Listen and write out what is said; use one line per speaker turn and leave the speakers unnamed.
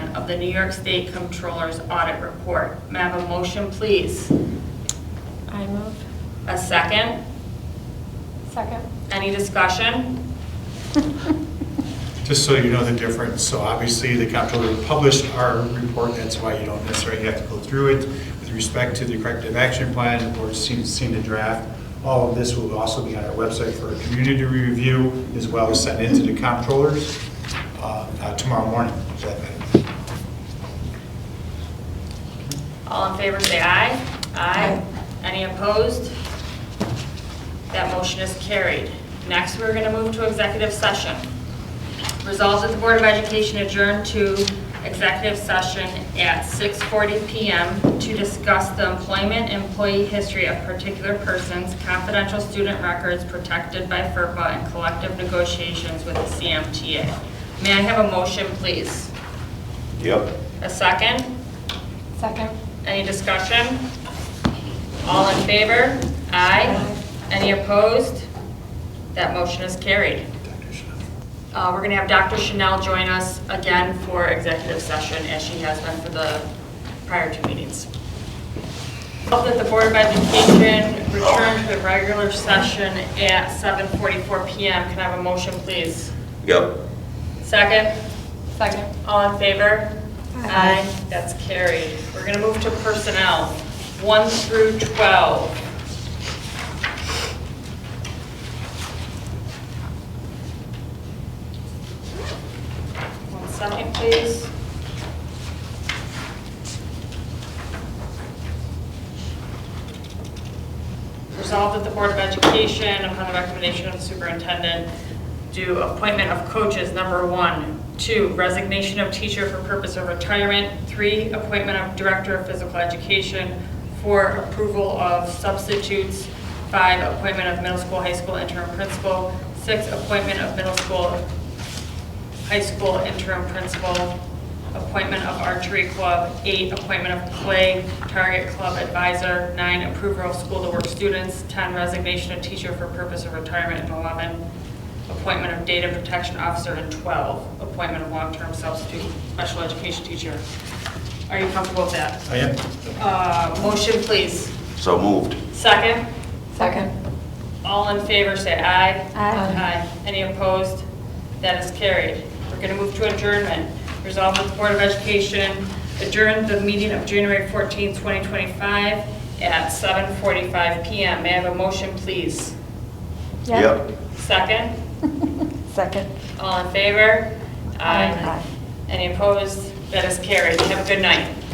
1 of the New York State Comptroller's Audit Report. May I have a motion, please?
I move.
A second?
Second.
Any discussion?
Just so you know the difference, so obviously the comptroller published our report, that's why you don't necessarily have to go through it. With respect to the corrective action plan, the board's seen, seen the draft. All of this will also be on our website for community review, as well as sent into the comptrollers uh, uh, tomorrow morning. Is that better?
All in favor, say aye. Aye. Any opposed? That motion is carried. Next, we're going to move to executive session. Resolved that the Board of Education adjourn to executive session at 6:40 PM to discuss the employment, employee history of particular persons, confidential student records protected by FERPA, and collective negotiations with the CMTA. May I have a motion, please?
Yep.
A second?
Second.
Any discussion? All in favor? Aye. Any opposed? That motion is carried.
Dr. Schiff.
Uh, We're going to have Dr. Chanel join us again for executive session, as she has been for the prior two meetings. Hope that the Board of Education return to the regular session at 7:44 PM. Can I have a motion, please?
Yep.
Second?
Second.
All in favor?
Aye.
That's carried. We're going to move to personnel, 1 through 12. One second, please. Resolved that the Board of Education, upon the recommendation of the superintendent, do appointment of coaches, number one. Two, resignation of teacher for purpose of retirement. Three, appointment of director of physical education. Four, approval of substitutes. Five, appointment of middle school, high school interim principal. Six, appointment of middle school, high school interim principal. Appointment of archery club. Eight, appointment of play target club advisor. Nine, approval of school to work students. Ten, resignation of teacher for purpose of retirement. And eleven, appointment of data protection officer. And twelve, appointment of long-term substitute special education teacher. Are you comfortable with that?
I am.
Uh, motion, please.
So moved.
Second,
Second.
all in favor, say aye.
Aye.
Any opposed? That is carried. We're going to move to adjournment. Resolved that the Board of Education adjourned the meeting of January 14, 2025 at 7:45 PM. May I have a motion, please?
Yep.
Second,
Second.
all in favor?
Aye.
Any opposed? That is carried. Have a good night.